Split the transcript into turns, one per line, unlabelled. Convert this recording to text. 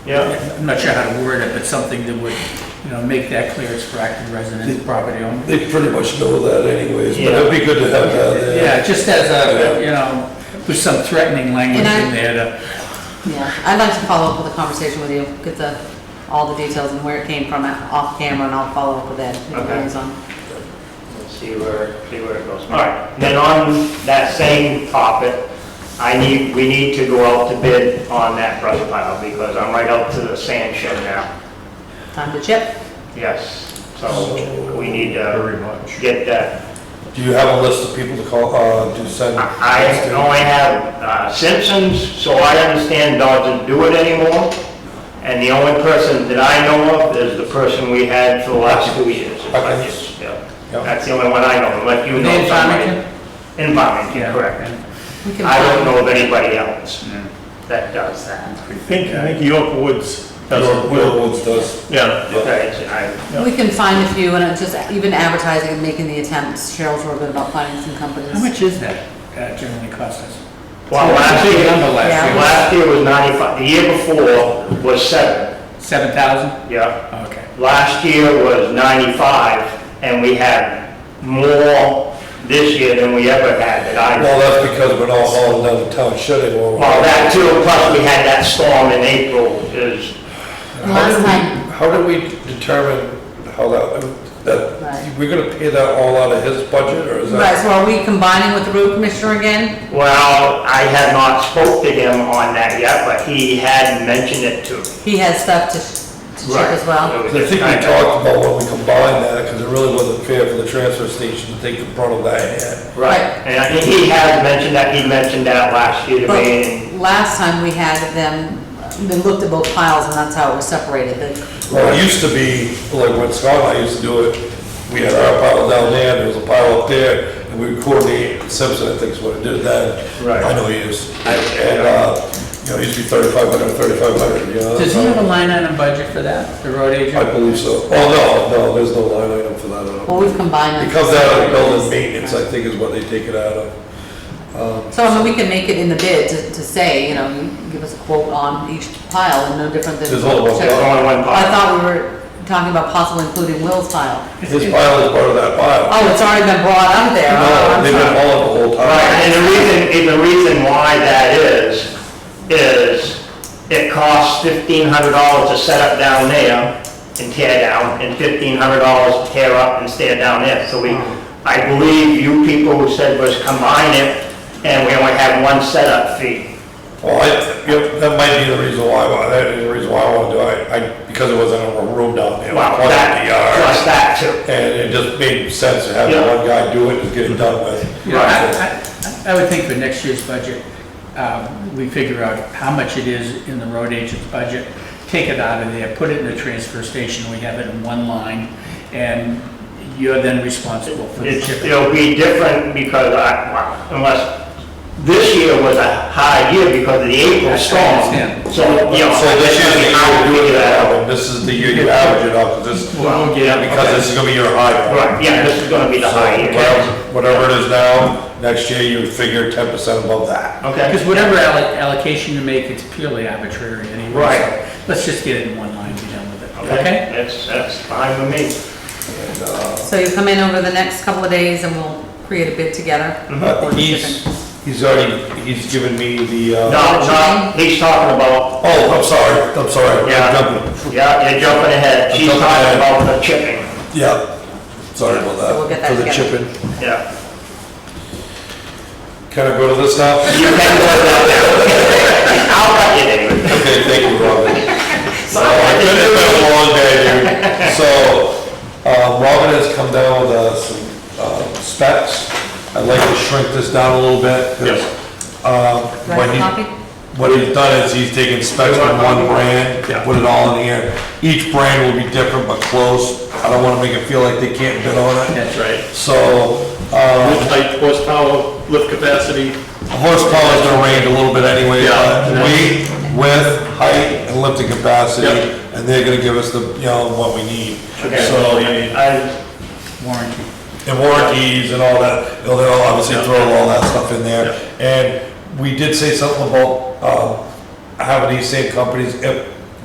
Yeah,
I'm not sure how to word it, but something that would, you know, make that clear it's for active resident property owner.
They pretty much know that anyways, but it'd be good to have that there.
Yeah, just as a, you know, with some threatening language
And I-
in there to,
Yeah, I'd like to follow up with a conversation with you, get the, all the details and where it came from off camera, and I'll follow up with Ed. if
Okay.
he's on.
We'll see where, see where it goes.
all right.
Then on that same topic, I need, we need to go out to bid on that brush pile because I'm right up to the sand shed now.
Time to chip.
Yes, so we need
Very
to
much.
get that.
Do you have a list of people to call, uh, to send?
I I only have uh, Simpsons, so I understand doesn't do it anymore. And the only person that I know of is the person we had for the last two years. in budgets. Yeah.
Yeah.
That's the only one I know, unless you know
Name
somebody.
Farmington?
In Farmington,
Yeah.
correct.
We can
I don't
find-
know of anybody else that does that.
I think, I think York Woods does
Your
it
Will
well.
Woods does.
Yeah,
Okay, so I-
We can find a few, and it's just even advertising and making the attempts, Cheryl's real good about finding some companies.
how much is that uh, generally cost us?
Well, last
It's a big
year,
number last
last year was 95, the year before was seven,
year. Seven thousand?
yeah.
Okay.
Last year was 95, and we had more this year than we ever had that I
Well, that's because we're not hauling down the town shed anymore.
Well, that too, plus we had that storm in April is,
How do
Last
we-
time-
How do we determine how that, that,
Right.
we're gonna pay that all out of his budget, or is
Right,
that?
so are we combining with the road commissioner again?
well, I have not spoke to him on that yet, but he had mentioned it to me.
He has stuff to sh- to chip as well.
It was
I think
just
we
kinda-
talked about when we combined that, because it really wasn't fair for the transfer station to take the brunt of that yet.
Right,
Right.
and I think he has mentioned that, he mentioned that last year to me, and
But last time we had them, they looked at both piles, and that's how it was separated. They-
Well, it used to be, like when Scott and I used to do it, we had our pile down there, and there was a pile up there, and we would coordinate, Simpson, I think is what it did then.
Right.
I know he is. And, uh, you know, it used to be thirty-five hundred, thirty-five hundred, you know?
Does he have a line item budget for that, the road
I
agent?
believe so. Oh, no, no, there's no line item for that at all.
Well, we've combined them.
It comes out of building maintenance, I think is what they take it out of.
So, I mean, we can make it in the bid to, to say, you know, you give us a quote on each pile, and no different than.
There's only one
there's
pile.
only one
I
pile.
thought we were talking about possibly including Will's pile.
His pile is part of that pile.
Oh, it's already been brought up there. Oh,
Ah,
No,
I'm
they've been
sorry.
hauling the whole
Right,
time.
and the reason, and the reason why that is, is it costs fifteen hundred dollars to set up down there and tear down, and fifteen hundred dollars to tear up and tear down there, so we,
Hmm.
I believe you people who said was combine it, and we only have one setup fee.
Well, I, yep, that might be the reason why, why- that is the reason why I wanna do it, I, because it wasn't a room down there. it was
Well,
one in
that,
the yard.
plus that too.
And it just made sense to have
Yeah.
one guy do it and get it done with.
You know, I, I, I would think for next year's budget, um, we figure out how much it is in the road agent's budget, take it out of there, put it in the transfer station, we have it in one line, and you're then responsible for the
It's-
shipping.
It'll be different because I, well, unless, this year was a high year because of the April storm.
understand.
So, you know.
So this year's the year you do it
that
out, and this is the year you average it out, because this,
Well, we'll get-
because this is gonna be your high point.
Right, yeah, this is gonna be the
So
high year.
whatever- Whatever it is now, next year you would figure ten percent above that.
Because
Okay,
whatever alloc- allocation you make, it's purely arbitrary anyway.
Right.
so Let's just get it in one line, and be done with it,
okay,
okay?
that's, that's fine with me.
uh,
So you come in over the next couple of days and we'll create a bid together?
Uh,
Or
He's,
different.
he's already, he's given me the, uh.
No, no, he's talking about,
Oh, I'm sorry, I'm sorry. I'm
Yeah.
jumping.
yeah, you're jumping ahead,
I'm
she's
jumping
talking
ahead.
about the chipping,
Yeah, sorry about that.
So we'll get that
For the
together.
chipping.
yeah.
Can I go to this now?
You can go down there. I'll cut you, David.
Okay, thank you, Robin. Oh,
Oh,
So, it's been a long day, dude. So, um, Robin has come down with uh, some um, specs. I'd like to shrink this down a little bit. 'cause,
Yes.
um,
Do I
what
have a
he-
copy?
What he's done is he's taken specs from one brand, put it all in here. Each brand will be different but close. I don't wanna make it feel like they can't bid on it.
That's right.
So, um,
height, horsepower, lift capacity.
Horsepower is gonna range a little bit anyway,
Yeah.
but weight, width, height, and lifting capacity,
Yep.
and they're gonna give us the, you know, what we need.
Okay.
So,
I,
Warranty.
and warranties and all that, they'll, they'll obviously throw all that stuff in there. And we did say something about, um, having these uh, same companies, if